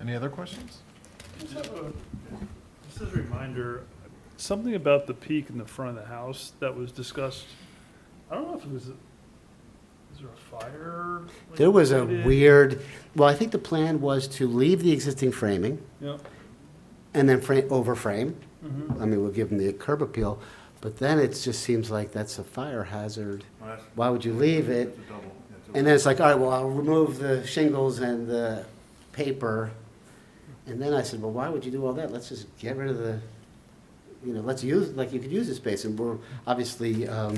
Any other questions? Just as a reminder, something about the peak in the front of the house that was discussed, I don't know if it was, is there a fire? like, There was a related? weird, well, I think the plan was to leave the existing framing Yeah, and then frame, overframe. mhm. I mean, we'll give them the curb appeal, but then it just seems like that's a fire hazard. Why would you leave it? And then it's like, all right, well, I'll remove the shingles and the paper. And then I said, well, why would you do all that? Let's just get rid of the, you know, let's use, like, you could use the space. And we're, obviously, um,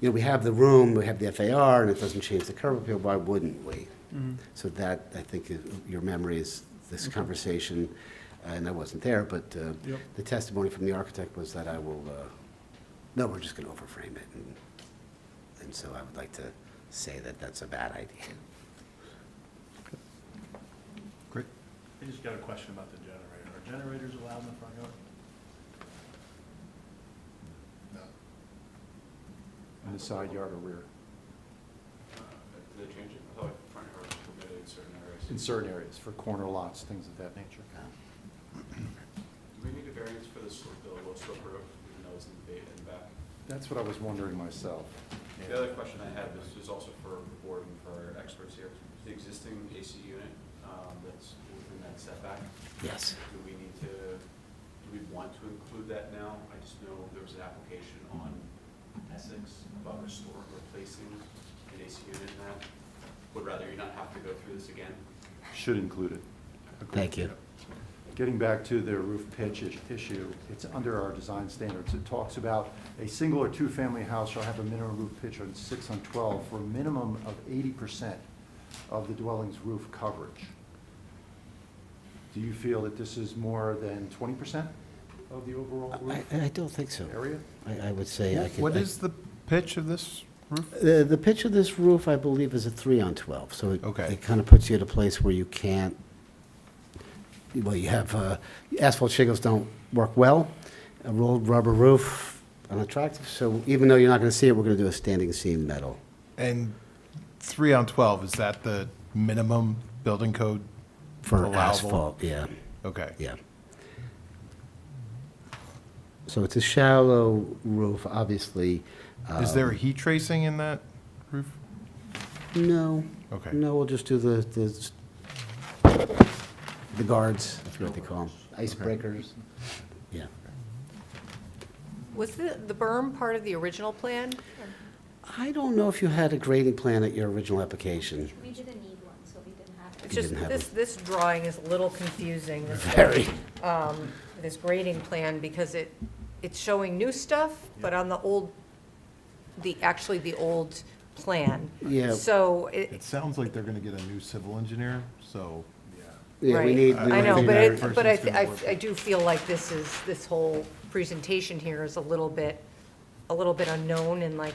you know, we have the room, we have the FAR, and it doesn't change the curb appeal. Why wouldn't we? Mhm. So that, I think, is- your memory is this conversation, uh, and I wasn't there, but uh, Yep. the testimony from the architect was that I will, uh, no, we're just going to overframe it. and- And so I would like to say that that's a bad idea. Great. I just got a question about the generator. Are generators allowed in the front yard? In the side yard or rear, Did Uh, they change it? I thought front yard was permitted in certain areas. in certain areas, for corner lots, things of that nature. Do we need a variance for the slope, the low slope roof, even though it's in the ba- in the back? That's what I was wondering myself. The other question I have is, is also for the board and for our experts here. The existing AC unit, um, that's within that setback, Yes. do we need to, do we want to include that now? I just know there was an application on Essex about restoring, replacing an AC unit in that. Would rather you not have to go through this again. Should include it. Agreed. Thank you. Getting back to the roof pitch is- issue, it's under our design standards. It talks about a single or two-family house shall have a minimum roof pitch on six on 12 for a minimum of 80% of the dwelling's roof coverage. Do you feel that this is more than 20% of the overall I, roof I don't think so. area? I, I would say I could. What I- is the pitch of this roof? The, the pitch of this roof, I believe, is a three on 12, so it, Okay. it kind of puts you at a place where you can't, well, you have, uh, asphalt shingles don't work well, a rolled rubber roof unattractive, so even though you're not going to see it, we're going to do a standing seam metal. And three on 12, is that the minimum building code? For Allowable. asphalt, yeah, Okay. yeah. So it's a shallow roof, obviously. Is there a um, heat tracing in that roof? No. Okay. No, we'll just do the, the, the guards, I forget what they call them, icebreakers. Yeah. Was the, the berm part of the original plan? I don't know if you had a grading plan at your original application. We didn't need one, so we didn't have to. It's You just, didn't have this, it. this drawing is a little confusing. this- Very. um, This grading plan, because it, it's showing new stuff, but on the old, the, actually the old plan. Yeah. So it, It sounds like they're going to get a new civil engineer, so. Yeah, we Right. need. I we I know, need but that. Person it, but I, who's I, gonna work. I do feel like this is, this whole presentation here is a little bit, a little bit unknown and like,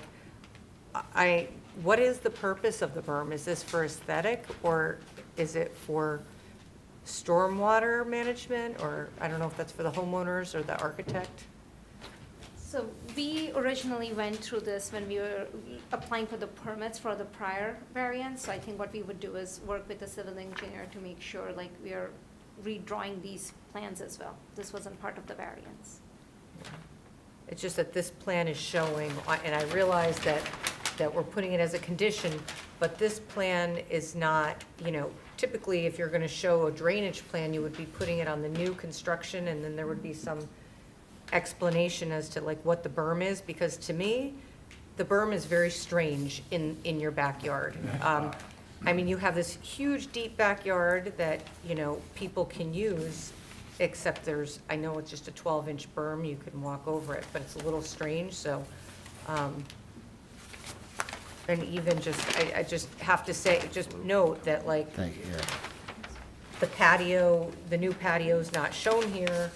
I, what is the purpose of the berm? Is this for aesthetic or is it for stormwater management? Or I don't know if that's for the homeowners or the architect? So we originally went through this when we were applying for the permits for the prior variance. So I think what we would do is work with the civil engineer to make sure, like, we are redrawing these plans as well. This wasn't part of the variance. It's just that this plan is showing, and I realize that, that we're putting it as a condition, but this plan is not, you know, typically, if you're gonna show a drainage plan, you would be putting it on the new construction, and then there would be some explanation as to like what the berm is, because to me, the berm is very strange in, in your backyard. Um, I mean, you have this huge, deep backyard that, you know, people can use, except there's, I know it's just a twelve-inch berm, you can walk over it, but it's a little strange, so, um, and even just, I, I just have to say, just note that like, Thank you, yeah. the patio, the new patio's not shown here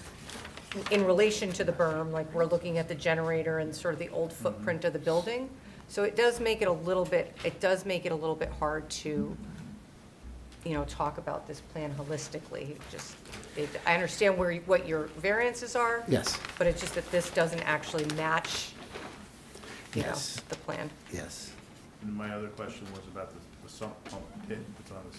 in relation to the berm, like we're looking at the generator and sort of the Mm-hmm. old footprint of the building. So it does make it a little bit, it does make it a little bit hard to, you know, talk about this plan holistically. It Just, it, I understand where, you- what your variances are. Yes. But it's just that this doesn't actually match, you know, Yes. the plan. Yes. And my other question was about the the sump pump pit that's on the